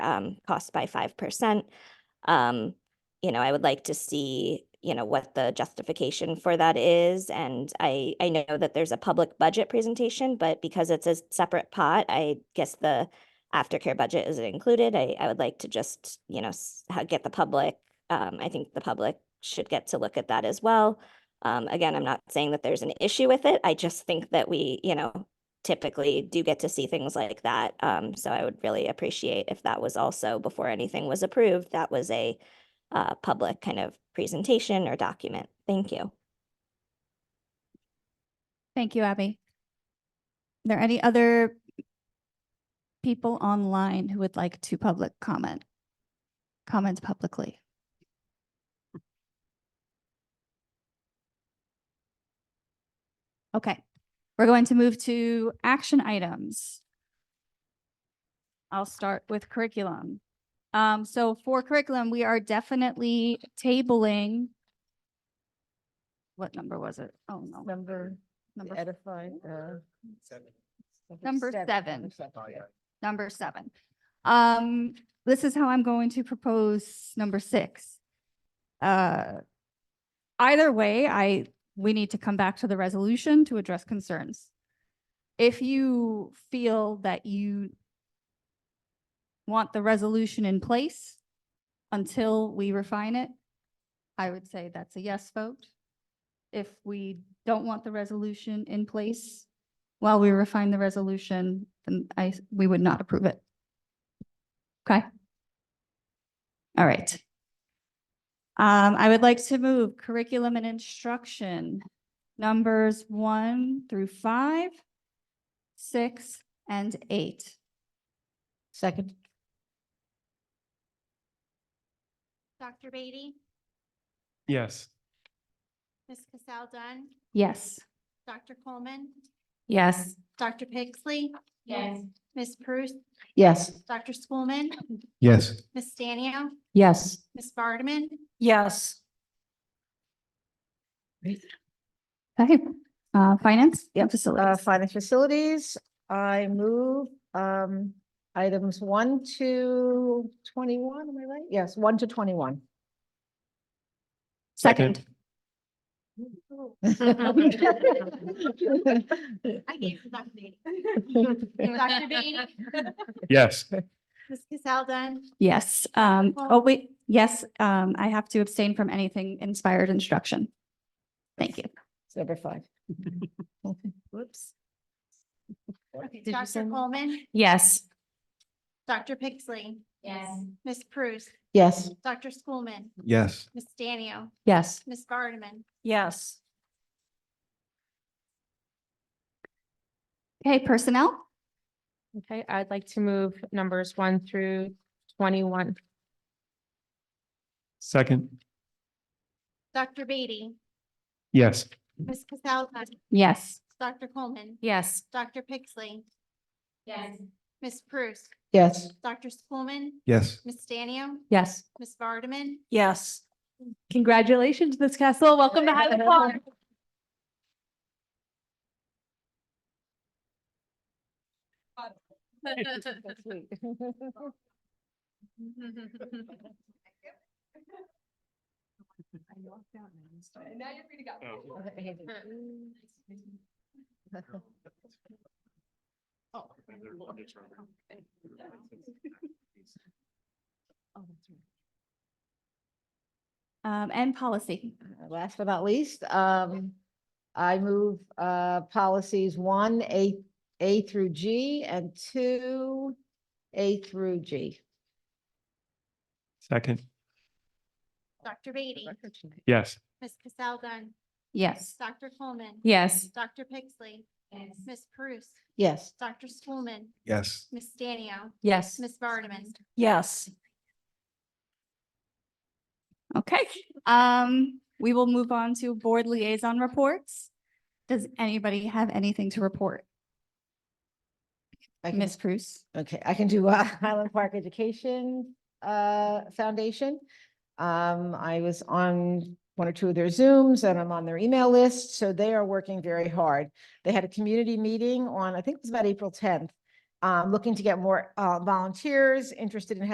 um, cost by five percent. Um, you know, I would like to see, you know, what the justification for that is. And I, I know that there's a public budget presentation, but because it's a separate pot, I guess the aftercare budget isn't included. I, I would like to just, you know, s- ha- get the public, um, I think the public should get to look at that as well. Um, again, I'm not saying that there's an issue with it. I just think that we, you know, typically do get to see things like that. Um, so I would really appreciate if that was also before anything was approved, that was a uh, public kind of presentation or document. Thank you. Thank you, Abby. Are there any other people online who would like to public comment? Comments publicly? Okay, we're going to move to action items. I'll start with curriculum. Um, so for curriculum, we are definitely tabling. What number was it? Oh, no. Number, Number edify, uh. Number seven. seven. number seven. Um, this is how I'm going to propose number six. Uh, either way, I, we need to come back to the resolution to address concerns. If you feel that you want the resolution in place until we refine it, I would say that's a yes vote. If we don't want the resolution in place, while we refine the resolution, then I, s- we would not approve it. Okay? All right. Um, I would like to move curriculum and instruction, numbers one through five, six, and eight. Second, Dr. Beatty, Yes. Ms. Cassel Dunn, Yes. Dr. Coleman, Yes. Dr. Pixley. Yes. Ms. Bruce, yes. Dr. Schoolman, Yes. Ms. Stanio, Yes. Ms. Vardaman, Yes. Okay, uh, finance? Yep, uh, Uh, Facilities. finance facilities, I move, um, items one to twenty-one, am I right? Yes, one to twenty-one. Second. I gave you Dr. Beatty. Dr. Beatty, Yes. Ms. Cassel Dunn, Yes, um, Well- oh wait, yes, um, I have to abstain from anything inspired instruction. Thank you. It's Number five. Whoops. Did you Dr. send- Coleman, Yes. Dr. Pixley. Yes. Ms. Bruce, Yes. Dr. Schoolman, Yes. Ms. Stanio, Yes. Ms. Vardaman, Yes. Okay, personnel? Okay, I'd like to move numbers one through twenty-one. Second. Dr. Beatty, Yes. Ms. Cassel Dunn, Yes. Dr. Coleman, Yes. Dr. Pixley. Yes. Ms. Bruce, Yes. Dr. Schoolman, Yes. Ms. Stanio, Yes. Ms. Vardaman, Yes. Congratulations, Ms. Castle. Welcome to Highland Park. Um, and policy. Uh, Last but not least, um, I move, uh, policies one, A, A through G and two, A through G. Second. Dr. Beatty, Yes. Ms. Cassel Dunn, Yes. Dr. Coleman. Yes. Dr. Pixley. Yes. Ms. Bruce, Yes. Dr. Schoolman, Yes. Ms. Stanio, Yes. Ms. Vardaman. Yes. Okay. Um, we will move on to board liaison reports. Does anybody have anything to report? I can, Ms. Prus? okay, I can do uh, Highland Park Education, uh, Foundation. Um, I was on one or two of their Zooms and I'm on their email list, so they are working very hard. They had a community meeting on, I think it was about April tenth, um, looking to get more, uh, volunteers interested in